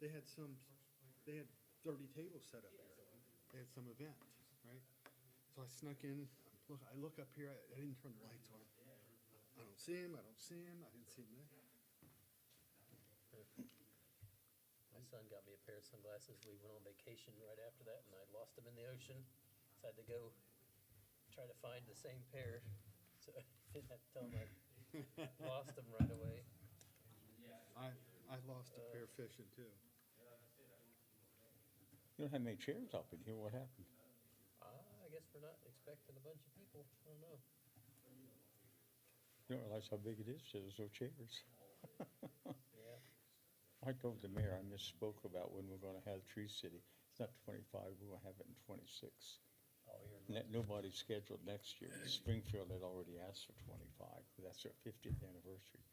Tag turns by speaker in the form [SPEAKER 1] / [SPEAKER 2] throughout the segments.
[SPEAKER 1] they had some, they had thirty tables set up here. They had some event, right? So I snuck in, look, I look up here, I I didn't turn the lights on. I don't see him, I don't see him, I didn't see him there.
[SPEAKER 2] My son got me a pair of sunglasses. We went on vacation right after that, and I lost them in the ocean. So I had to go try to find the same pair, so I didn't have to tell him I lost them right away.
[SPEAKER 1] I, I lost a pair fishing too.
[SPEAKER 3] You don't have many chairs up in here, what happened?
[SPEAKER 2] Ah, I guess we're not expecting a bunch of people. I don't know.
[SPEAKER 3] You don't realize how big it is, there's no chairs.
[SPEAKER 2] Yeah,
[SPEAKER 3] I told the mayor, I misspoke about when we're gonna have Tree City. It's not twenty-five, we're gonna have it in twenty-six.
[SPEAKER 2] all year
[SPEAKER 3] And that nobody's scheduled next year. Springfield had already asked for twenty-five, but that's their fiftieth anniversary.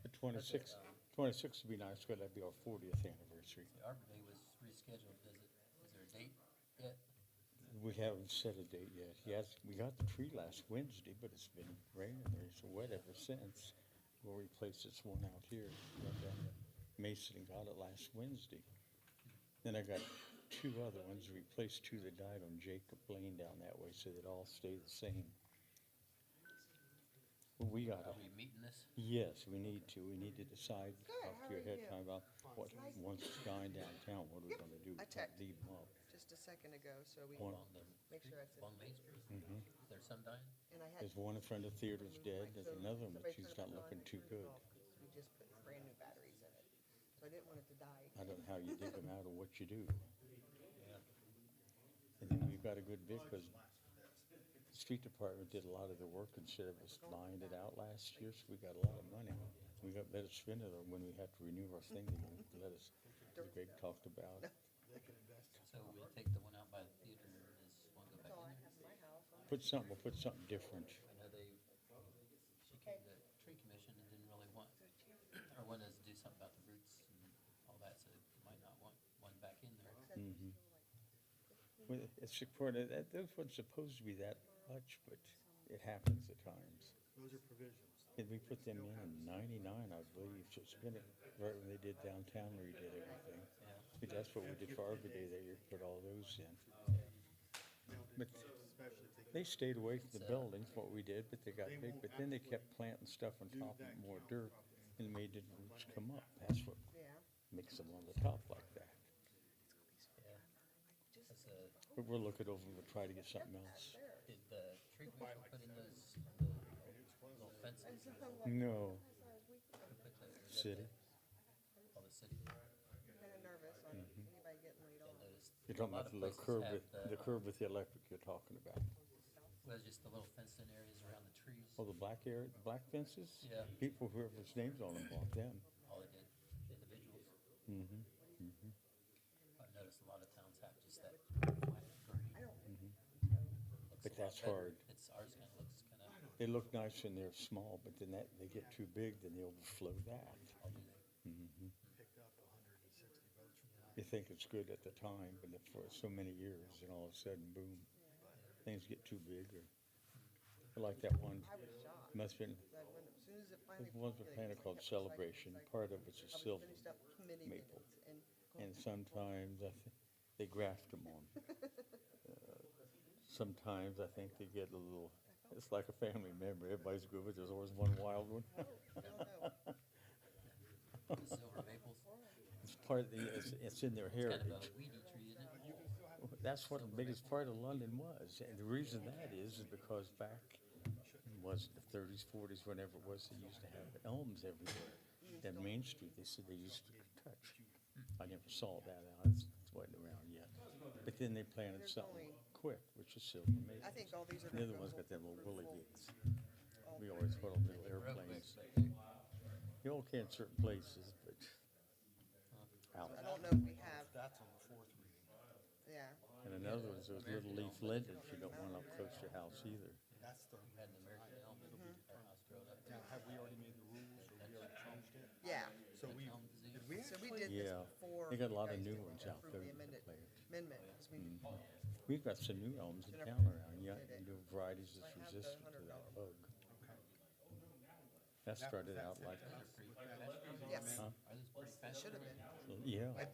[SPEAKER 3] But 26
[SPEAKER 2] um,
[SPEAKER 3] 26 would be nice, because that'd be our fortieth anniversary.
[SPEAKER 2] The Arbor Day was rescheduled. Is it, is there a date yet?
[SPEAKER 3] We haven't set a date yet. Yes, we got the tree last Wednesday, but it's been raining, there, it's wet ever since. We'll replace this one out here. right down there. Mason and got it last Wednesday. Then I got two other ones, replaced two that died on Jacob Lane down that way, so they'd all stay the same. Well, We got
[SPEAKER 2] Are
[SPEAKER 3] a
[SPEAKER 2] we meeting this?
[SPEAKER 3] Yes, we need to. We need to decide
[SPEAKER 4] Good,
[SPEAKER 3] up
[SPEAKER 4] how
[SPEAKER 3] here
[SPEAKER 4] are
[SPEAKER 3] ahead of
[SPEAKER 4] you?
[SPEAKER 3] time about what,
[SPEAKER 4] Nice.
[SPEAKER 3] once it's dying downtown, what are we
[SPEAKER 4] Yep,
[SPEAKER 3] gonna do?
[SPEAKER 4] I checked.
[SPEAKER 3] Leave them up.
[SPEAKER 4] just a second ago, so we,
[SPEAKER 3] One.
[SPEAKER 2] Along the,
[SPEAKER 4] make sure it's,
[SPEAKER 2] along Main Street?
[SPEAKER 3] Mhm.
[SPEAKER 2] Is there some dying?
[SPEAKER 4] and I had.
[SPEAKER 3] There's one in front of the theater's dead, there's
[SPEAKER 4] So
[SPEAKER 3] another one, but
[SPEAKER 4] somebody
[SPEAKER 3] she's
[SPEAKER 4] put
[SPEAKER 3] not
[SPEAKER 4] it on
[SPEAKER 3] looking
[SPEAKER 4] the
[SPEAKER 3] too
[SPEAKER 4] cruise
[SPEAKER 3] good.
[SPEAKER 4] bulb, 'cause We just put brand new batteries in it, so I didn't want it to die.
[SPEAKER 3] I don't know how you dig them out or what you do.
[SPEAKER 2] Yeah.
[SPEAKER 3] And then we've got a good bit, because the street department did a lot of the work instead of us buying it out last year, so we got a lot of money. We got, let us spend it, or when we have to renew our thing, they won't let us, as Greg talked about.
[SPEAKER 1] They could invest.
[SPEAKER 2] So we'll take the one out by the theater and this one go back
[SPEAKER 4] That's all I
[SPEAKER 2] in there?
[SPEAKER 4] have in my house.
[SPEAKER 3] Put something, we'll put something different.
[SPEAKER 2] I know they, she came to the tree commission and didn't really want, or wanted us to do something about the roots and all that, so they might not want one back in there.
[SPEAKER 4] Said it was
[SPEAKER 3] Mhm.
[SPEAKER 4] still like-
[SPEAKER 3] Well, it's important, that, that wasn't supposed to be that much, but it happens at times.
[SPEAKER 1] Those are provisions.
[SPEAKER 3] And we put them in in ninety-nine, I believe, so it's been, right when they did downtown redid everything. But that's what we did for Arbor Day, they put all those in. But-
[SPEAKER 1] Especially if
[SPEAKER 3] They stayed away from the buildings, what we did, but they got big, but then they kept planting stuff on top of more dirt and made the roots come up. That's what
[SPEAKER 4] Yeah.
[SPEAKER 3] makes them on the top like that.
[SPEAKER 2] Yeah, that's a,
[SPEAKER 3] But we'll look it over, we'll try to get something
[SPEAKER 4] Yep,
[SPEAKER 3] else.
[SPEAKER 4] there.
[SPEAKER 2] did the tree commission put in those little
[SPEAKER 4] And
[SPEAKER 2] fences?
[SPEAKER 4] sometimes like,
[SPEAKER 3] No,
[SPEAKER 4] I was weak,
[SPEAKER 2] Who put those? Was that
[SPEAKER 3] city,
[SPEAKER 2] the- Oh, the city.
[SPEAKER 4] kind of nervous on
[SPEAKER 3] Mm-hmm.
[SPEAKER 4] anybody getting laid
[SPEAKER 2] I
[SPEAKER 4] off.
[SPEAKER 2] noticed
[SPEAKER 3] you're talking
[SPEAKER 2] a lot
[SPEAKER 3] about
[SPEAKER 2] of
[SPEAKER 3] the little
[SPEAKER 2] places
[SPEAKER 3] curb,
[SPEAKER 2] have
[SPEAKER 3] with- the curb with the electric you're talking about.
[SPEAKER 2] Well, just the little fenced-in areas around the trees.
[SPEAKER 3] Oh, the black area, the black fences?
[SPEAKER 2] Yeah.
[SPEAKER 3] People, whoever's names on them, bought them.
[SPEAKER 2] all they did, individuals.
[SPEAKER 3] Mm-hmm.
[SPEAKER 2] I've noticed a lot of towns have just that flat green.
[SPEAKER 4] I don't,
[SPEAKER 2] Looks
[SPEAKER 3] But
[SPEAKER 2] a lot
[SPEAKER 3] that's
[SPEAKER 2] better.
[SPEAKER 3] hard.
[SPEAKER 2] It's, ours kind of looks kind of,
[SPEAKER 3] They look nice when they're small, but then that, they get too big, then they overflow that.
[SPEAKER 2] I'll do that.
[SPEAKER 3] Mm-hmm.
[SPEAKER 1] Picked up hundred and sixty votes from that.
[SPEAKER 3] You think it's good at the time, but if for so many years, and all of a sudden, boom, things get too big or, I like that one,
[SPEAKER 4] I was shocked.
[SPEAKER 3] must've been,
[SPEAKER 4] That when, as soon as it finally.
[SPEAKER 3] there was a planet
[SPEAKER 4] populated, I
[SPEAKER 3] called
[SPEAKER 4] kept recycling,
[SPEAKER 3] Celebration,
[SPEAKER 4] recycling.
[SPEAKER 3] part of it's a
[SPEAKER 4] I was
[SPEAKER 3] silver.
[SPEAKER 4] finished up many
[SPEAKER 3] maple.
[SPEAKER 4] minutes and.
[SPEAKER 3] And sometimes I think they graft them on. Uh, Sometimes I think they get a little, it's like a family member, everybody's good, but there's always one wild one.
[SPEAKER 4] I don't know.
[SPEAKER 2] The silver maples.
[SPEAKER 3] It's part of the, it's, it's in their
[SPEAKER 2] It's kind of a
[SPEAKER 3] heritage.
[SPEAKER 2] weedy tree, isn't it?
[SPEAKER 3] That's what the biggest part of London was, and the reason that is, is because back, was it the thirties, forties, whenever it was, they used to have elms everywhere. That Main Street, they said they used to touch. I never saw that, out. it's it wasn't around yet. But then they planted
[SPEAKER 4] There's
[SPEAKER 3] something
[SPEAKER 4] only-
[SPEAKER 3] quick, which is silver maple.
[SPEAKER 4] I think all these are.
[SPEAKER 3] The
[SPEAKER 4] gonna
[SPEAKER 3] other
[SPEAKER 4] go
[SPEAKER 3] one's got them little
[SPEAKER 4] full-
[SPEAKER 3] woolly bits.
[SPEAKER 4] all
[SPEAKER 3] We
[SPEAKER 4] three.
[SPEAKER 3] always put on little
[SPEAKER 2] Real quick,
[SPEAKER 3] airplanes.
[SPEAKER 2] but
[SPEAKER 3] You all can in certain places, but out.
[SPEAKER 4] I don't know if we have,
[SPEAKER 1] That's on the fourth reading.
[SPEAKER 4] yeah,
[SPEAKER 3] And another one's those little leaf lindens, you don't want up close to your house either.
[SPEAKER 1] That's the,
[SPEAKER 2] we had an American elm at our house growing up.
[SPEAKER 1] now, have we already made the rules or we already changed it?
[SPEAKER 4] yeah.
[SPEAKER 1] So we,
[SPEAKER 2] Elm disease.
[SPEAKER 1] did we
[SPEAKER 4] So
[SPEAKER 1] actually?
[SPEAKER 4] we did
[SPEAKER 3] Yeah.
[SPEAKER 4] this before.
[SPEAKER 3] They got a
[SPEAKER 4] you
[SPEAKER 3] lot of
[SPEAKER 4] guys
[SPEAKER 3] new
[SPEAKER 4] did
[SPEAKER 3] ones out
[SPEAKER 4] approve
[SPEAKER 3] there
[SPEAKER 4] the
[SPEAKER 3] that Mm.
[SPEAKER 4] amended
[SPEAKER 3] they-
[SPEAKER 4] Amendment, 'cause we did-
[SPEAKER 3] We've got some new elms in
[SPEAKER 4] Did I-
[SPEAKER 3] town around, yeah,
[SPEAKER 4] did it?
[SPEAKER 3] and new varieties
[SPEAKER 4] I
[SPEAKER 3] that's
[SPEAKER 4] have the
[SPEAKER 3] resistant to
[SPEAKER 4] hundred
[SPEAKER 3] that
[SPEAKER 4] dollar
[SPEAKER 3] bug.
[SPEAKER 1] Okay.
[SPEAKER 3] That started out like,
[SPEAKER 2] Those are pretty- Are
[SPEAKER 4] yes,
[SPEAKER 3] Huh?
[SPEAKER 2] those pretty fast?
[SPEAKER 4] should have been.
[SPEAKER 3] yeah.